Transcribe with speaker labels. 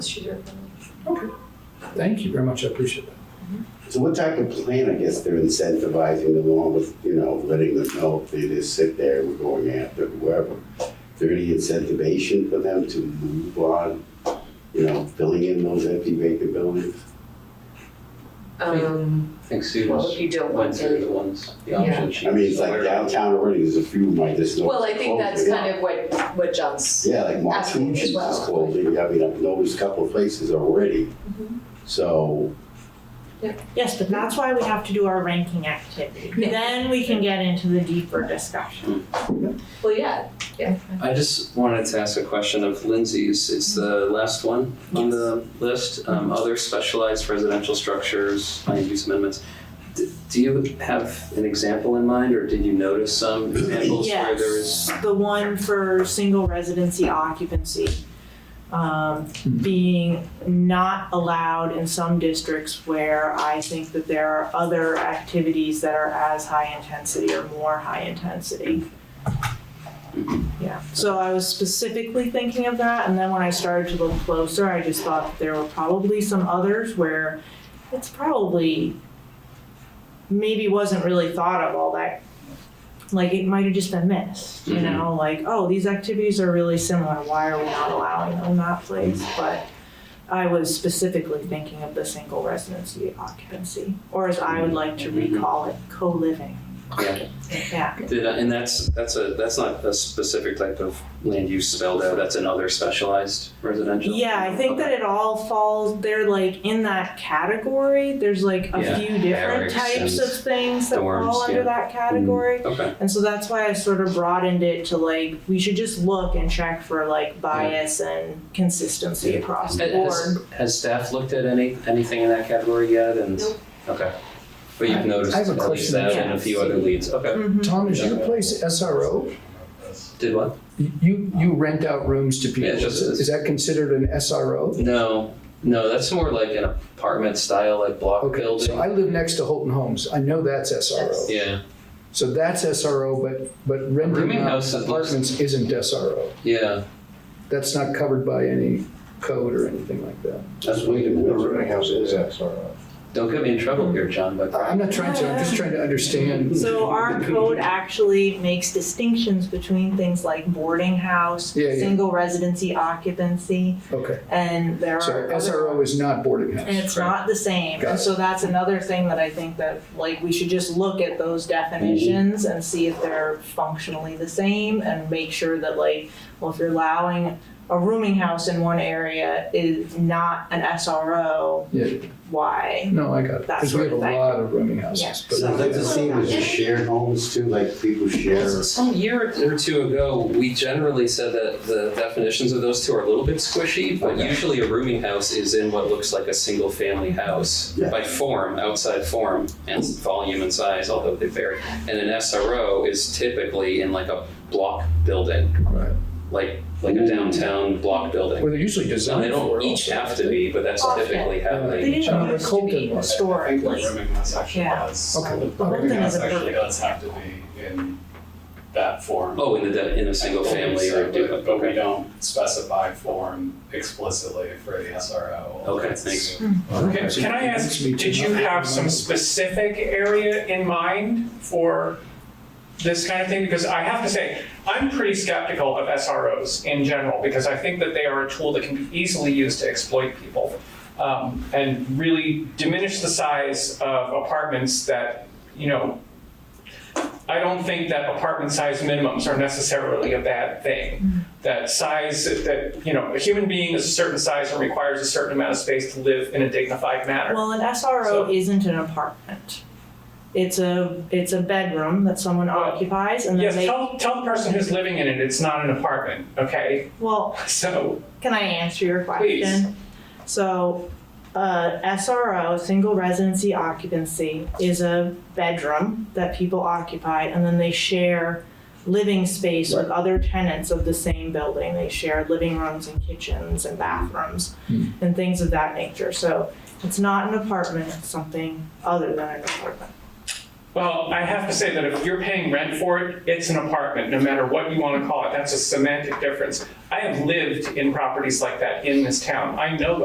Speaker 1: She's your friend.
Speaker 2: Thank you very much, I appreciate that.
Speaker 3: So what type of plan, I guess, they're incentivizing along with, you know, letting them know if they just sit there, we're going after whoever. Is there any incentivization for them to move on, you know, filling in those empty vacant buildings?
Speaker 1: Um,
Speaker 4: I think
Speaker 1: well, if
Speaker 4: Sue's
Speaker 1: you don't
Speaker 4: went
Speaker 1: want
Speaker 4: through
Speaker 1: to.
Speaker 4: the ones, the
Speaker 1: Yeah.
Speaker 4: options she
Speaker 3: I mean, it's
Speaker 4: was
Speaker 3: like
Speaker 4: aware of.
Speaker 3: downtown already, there's a few like this.
Speaker 1: Well, I think that's kind of what, what John's,
Speaker 3: Yeah, like
Speaker 1: Asking as
Speaker 3: Martucci's
Speaker 1: well.
Speaker 3: is closing, I mean, I've noticed a couple of places already. So,
Speaker 5: Yes, but that's why we have to do our ranking activity.
Speaker 1: Yeah.
Speaker 5: Then we can get into the deeper discussion.
Speaker 1: well, yeah, yeah.
Speaker 4: I just wanted to ask a question of Lindsay's. It's the last one on the list. Um, other specialized residential structures, land use amendments. D- do you have an example in mind, or did you notice some examples where there is?
Speaker 5: Yes, the one for single residency occupancy, um,
Speaker 4: Hmm.
Speaker 5: being not allowed in some districts where I think that there are other activities that are as high intensity or more high intensity. Yeah, so I was specifically thinking of that, and then when I started to look closer, I just thought that there were probably some others where it's probably maybe wasn't really thought of all that. Like it might have just been missed, you know, like, oh, these activities are really similar, why are we not allowing them in that place? But I was specifically thinking of the single residency occupancy, or as I would like to recall it, co-living.
Speaker 4: Yeah.
Speaker 5: Yeah,
Speaker 4: Did I, and that's that's a that's not a specific type of land use spelled out. That's another specialized residential.
Speaker 5: Yeah, I think that it all falls, they're like in that category. There's like a
Speaker 4: Yeah,
Speaker 5: few different
Speaker 4: barracks
Speaker 5: types
Speaker 4: and
Speaker 5: of things that
Speaker 4: dorms,
Speaker 5: fall
Speaker 4: yeah.
Speaker 5: under that category.
Speaker 4: Okay.
Speaker 5: And so that's why I sort of broadened it to like, we should just look and check for like bias and consistency across the board.
Speaker 4: Has, has staff looked at any anything in that category yet? And
Speaker 1: Nope.
Speaker 4: okay, but you've
Speaker 2: I-
Speaker 4: noticed
Speaker 2: I have a
Speaker 4: at least
Speaker 2: question.
Speaker 4: that and a few other leads. Okay.
Speaker 5: Mhm.
Speaker 2: Tom, is your place SRO?
Speaker 4: Did what?
Speaker 2: You, you rent out rooms to people,
Speaker 4: Yeah, it's just-
Speaker 2: is is that considered an SRO?
Speaker 4: No, no, that's more like an apartment style, like block
Speaker 2: Okay,
Speaker 4: building.
Speaker 2: so I live next to Holton Homes, I know that's SRO.
Speaker 4: yeah,
Speaker 2: So that's SRO, but, but renting
Speaker 4: Rooming
Speaker 2: out
Speaker 4: houses looks-
Speaker 2: apartments isn't SRO.
Speaker 4: yeah.
Speaker 2: That's not covered by any code or anything like that.
Speaker 4: That's
Speaker 3: wait a minute.
Speaker 4: Don't get me in trouble here, John. But
Speaker 2: I- I'm not trying to, I'm just trying to understand.
Speaker 3: Mm-hmm.
Speaker 5: So our code actually makes distinctions between things like boarding house,
Speaker 2: Yeah, yeah.
Speaker 5: single residency occupancy,
Speaker 2: Okay,
Speaker 5: and there
Speaker 2: so
Speaker 5: are. other-
Speaker 2: SRO is not boarding house.
Speaker 5: And it's
Speaker 4: Right.
Speaker 5: not the same,
Speaker 2: Got it.
Speaker 5: and so that's another thing that I think that, like, we should just look at those definitions and see if they're functionally the same and make sure that like, well, if you're allowing a rooming house in one area is not an SRO,
Speaker 2: Yeah,
Speaker 5: why?
Speaker 2: no, I got it,
Speaker 5: That
Speaker 2: because we
Speaker 5: sort
Speaker 2: have a
Speaker 5: of thing.
Speaker 2: lot of rooming
Speaker 5: Yeah.
Speaker 2: houses. but-
Speaker 3: So that's the same as the shared homes too, like people share.
Speaker 4: Some year or two ago, we generally said that the definitions of those two are a little bit squishy, but
Speaker 3: Okay.
Speaker 4: usually a rooming house is in what looks like a single family house
Speaker 3: Yeah.
Speaker 4: by form, outside form, and volume and size, although they vary. And an SRO is typically in like a block building,
Speaker 2: Right.
Speaker 4: like like a
Speaker 3: Ooh.
Speaker 4: downtown block building.
Speaker 2: Well, they're usually
Speaker 4: So they
Speaker 2: designed for.
Speaker 4: don't each
Speaker 2: also,
Speaker 4: have
Speaker 2: I
Speaker 4: to be, but that's
Speaker 5: Often.
Speaker 4: typically how
Speaker 2: Yeah.
Speaker 4: they.
Speaker 5: They didn't
Speaker 2: Uh,
Speaker 5: used to
Speaker 2: Colton
Speaker 5: be
Speaker 2: was.
Speaker 5: historically.
Speaker 6: Rooming house actually
Speaker 5: Yeah.
Speaker 6: does.
Speaker 2: Okay.
Speaker 6: The rooming
Speaker 5: Colton
Speaker 6: house
Speaker 5: is a
Speaker 6: actually
Speaker 5: perfect-
Speaker 6: does have to be in that form.
Speaker 4: Oh, in the de- in a single family or
Speaker 6: But-
Speaker 4: duplex.
Speaker 6: But we
Speaker 4: Okay.
Speaker 6: don't specify form explicitly for the SRO.
Speaker 4: Okay,
Speaker 6: It's-
Speaker 4: thanks.
Speaker 7: Can
Speaker 2: So
Speaker 7: can I
Speaker 2: it
Speaker 7: ask,
Speaker 2: makes me
Speaker 7: did
Speaker 2: too-
Speaker 7: you have some specific area in mind for this kind of thing? Because I have to say, I'm pretty skeptical of SROs in general, because I think that they are a tool that can be easily used to exploit people um, and really diminish the size of apartments that, you know, I don't think that apartment size minimums are necessarily a bad
Speaker 5: Mm-hmm.
Speaker 7: thing. That size, that, you know, a human being is a certain size and requires a certain amount of space to live in a dignified manner.
Speaker 5: Well, an
Speaker 7: So-
Speaker 5: SRO isn't an apartment. It's a, it's a bedroom that someone
Speaker 7: Well,
Speaker 5: occupies and then
Speaker 7: Yes,
Speaker 5: they,
Speaker 7: tell, tell the person who's living in it, it's not an apartment, okay?
Speaker 5: well,
Speaker 7: So,
Speaker 5: Can I answer your question?
Speaker 7: Please.
Speaker 5: So, uh, SRO, single residency occupancy, is a bedroom that people occupy and then they share living space with other tenants of the same building. They share living rooms and kitchens and bathrooms and things of that nature. So, it's not an apartment, it's something other than an apartment.
Speaker 7: Well, I have to say that if you're paying rent for it, it's an apartment, no matter what you want to call it. That's a semantic difference. I have lived in properties like that in this town. I know